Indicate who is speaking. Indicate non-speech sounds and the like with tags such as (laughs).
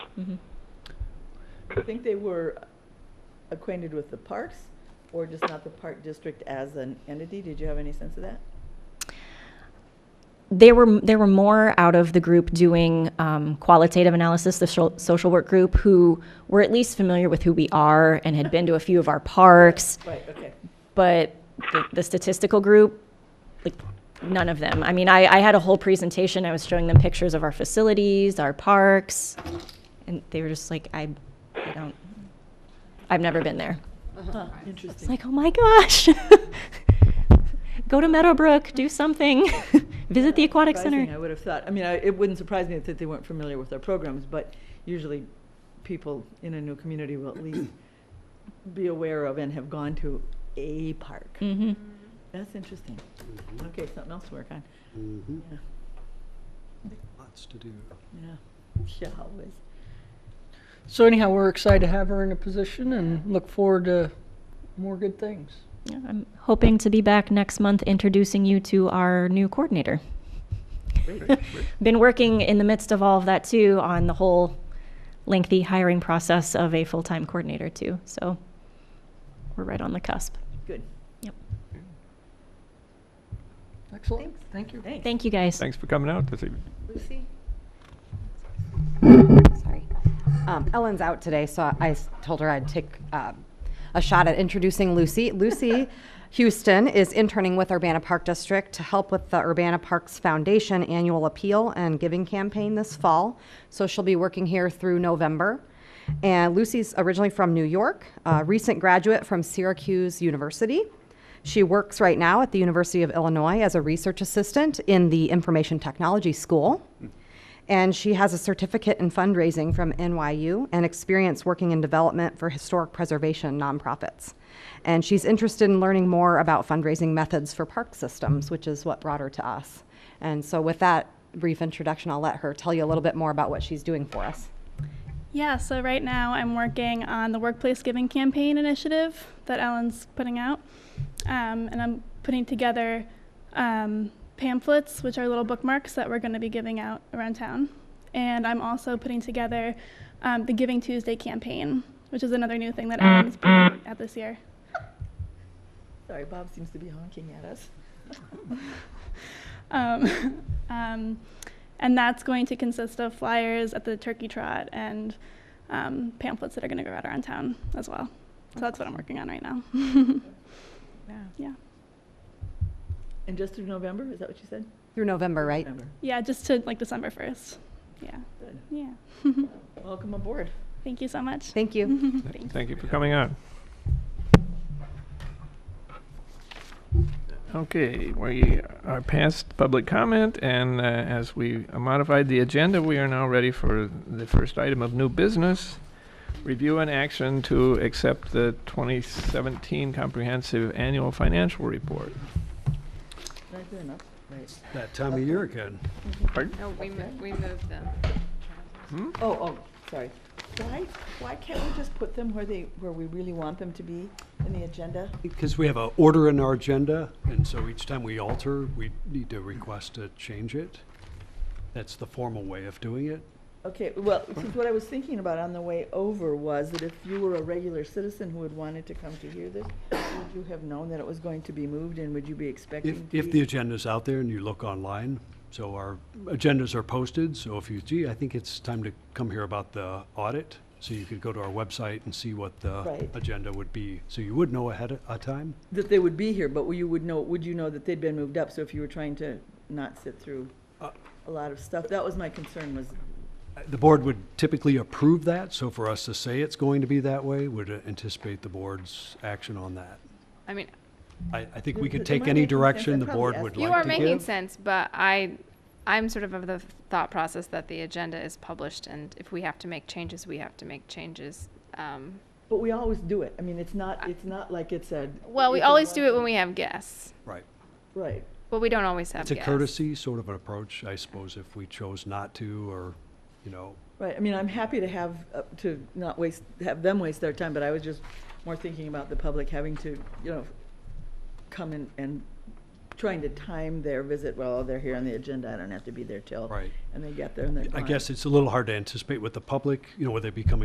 Speaker 1: Mhm.
Speaker 2: I think they were acquainted with the parks or just not the park district as an entity. Did you have any sense of that?
Speaker 1: There were, there were more out of the group doing um, qualitative analysis, the social, social work group, who were at least familiar with who we are and had been to a few of our parks.
Speaker 2: (laughs) Right, okay.
Speaker 1: but the, the statistical group, like, none of them. I mean, I, I had a whole presentation, I was showing them pictures of our facilities, our parks, and they were just like, I, I don't, I've never been there.
Speaker 2: Huh,
Speaker 1: It's
Speaker 2: Interesting.
Speaker 1: like, oh my gosh. (laughs) Go to Meadowbrook, do something, (laughs) visit the aquatic
Speaker 2: Surprising, I
Speaker 1: center.
Speaker 2: would have thought, I mean, I- it wouldn't surprise me that they weren't familiar with our programs, but usually people in a new community will at least be aware of and have gone to a park.
Speaker 1: Mhm.
Speaker 2: That's interesting.
Speaker 3: Mm-hmm.
Speaker 2: Okay, something else to work on.
Speaker 4: Mm-hmm.
Speaker 2: Yeah,
Speaker 4: Lots to do.
Speaker 2: yeah. (laughs) She always.
Speaker 5: So anyhow, we're excited to have her in a position and look forward to more good things.
Speaker 1: Yeah, I'm hoping to be back next month introducing you to our new coordinator. (laughs) Been working in the midst of all of that too on the whole lengthy hiring process of a full-time coordinator too. So we're right on the cusp.
Speaker 2: Good.
Speaker 1: Yep.
Speaker 5: Excellent.
Speaker 2: Thanks.
Speaker 5: Thank you.
Speaker 2: Thanks.
Speaker 1: Thank you guys.
Speaker 6: Thanks for coming out this evening.
Speaker 7: Lucy? Sorry. Um, Ellen's out today, so I s- told her I'd take um, a shot at introducing Lucy. Lucy Houston is interning with Urbana Park District to help with the Urbana Parks Foundation annual appeal and giving campaign this fall. So she'll be working here through November. And Lucy's originally from New York, a recent graduate from Syracuse University. She works right now at the University of Illinois as a research assistant in the Information Technology School. And she has a certificate in fundraising from NYU and experience working in development for historic preservation nonprofits. And she's interested in learning more about fundraising methods for park systems, which is what brought her to us. And so, with that brief introduction, I'll let her tell you a little bit more about what she's doing for us.
Speaker 8: Yeah, so right now I'm working on the Workplace Giving Campaign initiative that Ellen's putting out. Um, and I'm putting together um, pamphlets, which are little bookmarks that we're going to be giving out around town. And I'm also putting together um, the Giving Tuesday campaign, which is another new thing that Ellen's putting out this year.
Speaker 2: Sorry, Bob seems to be honking at us.
Speaker 8: (laughs) Um, um, and that's going to consist of flyers at the turkey trot and um, pamphlets that are going to go out around town as well. So that's what I'm working on right now. (laughs) yeah.
Speaker 2: And just through November, is that what you said?
Speaker 7: Through November, right?
Speaker 2: November.
Speaker 8: Yeah, just to like December 1st. Yeah.
Speaker 2: Good.
Speaker 8: Yeah. (laughs)
Speaker 2: Welcome aboard.
Speaker 8: Thank you so much.
Speaker 7: Thank you.
Speaker 8: (laughs) Thanks.
Speaker 6: Thank you for coming out. Okay, we are past public comment, and uh, as we modified the agenda, we are now ready for the first item of new business. Review and action to accept the 2017 Comprehensive Annual Financial Report.
Speaker 2: Did I do enough? Right.
Speaker 4: That time of year again.
Speaker 6: Pardon?
Speaker 3: No, we, mo- we moved them.
Speaker 6: Hmm?
Speaker 2: Oh, oh, sorry. Why, why can't we just put them where they, where we really want them to be in the agenda?
Speaker 4: Because we have a order in our agenda, and so each time we alter, we need to request to change it. That's the formal way of doing it.
Speaker 2: Okay, well, because what I was thinking about on the way over was that if you were a regular citizen who had wanted to come to hear this, would you have known that it was going to be moved and would you be
Speaker 4: If,
Speaker 2: expecting? to
Speaker 4: if
Speaker 2: be-
Speaker 4: the agenda's out there and you look online, so our agendas are posted, so if you, gee, I think it's time to come here about the audit, so you could go to our website and see what the
Speaker 2: Right.
Speaker 4: agenda would be, so you would know ahead of uh, time.
Speaker 2: That they would be here, but you would know, would you know that they'd been moved up? So if you were trying to not sit through
Speaker 4: Uh.
Speaker 2: a lot of stuff, that was my concern was,
Speaker 4: The board would typically approve that, so for us to say it's going to be that way, would anticipate the board's action on that.
Speaker 3: I mean,
Speaker 4: I, I think we
Speaker 2: Am
Speaker 4: could
Speaker 2: I
Speaker 4: take any
Speaker 2: making sense?
Speaker 4: direction
Speaker 2: I'm
Speaker 4: the
Speaker 2: probably
Speaker 4: board would
Speaker 2: asking
Speaker 4: like
Speaker 3: you
Speaker 4: to
Speaker 3: are
Speaker 4: give.
Speaker 3: making sense, but I, I'm sort of of the thought process that the agenda is published, and if we have to make changes, we have to make changes. Um,
Speaker 2: but we always do it. I mean, it's not, it's not like it's a.
Speaker 3: well, we
Speaker 2: it's a
Speaker 3: always do it
Speaker 2: one-
Speaker 3: when we have guests,
Speaker 4: Right.
Speaker 2: Right.
Speaker 3: but we don't always have
Speaker 4: It's a
Speaker 3: guests.
Speaker 4: courtesy sort of an approach, I suppose, if we chose not to, or, you know,
Speaker 2: Right, I mean, I'm happy to have, uh, to not waste, have them waste their time, but I was just more thinking about the public having to, you know, come in and trying to time their visit, well, they're here on the agenda, I don't have to be there till.
Speaker 4: Right.
Speaker 2: And they get there and they're
Speaker 4: I
Speaker 2: gone.
Speaker 4: guess it's a little hard to anticipate with the public, you know, whether they be coming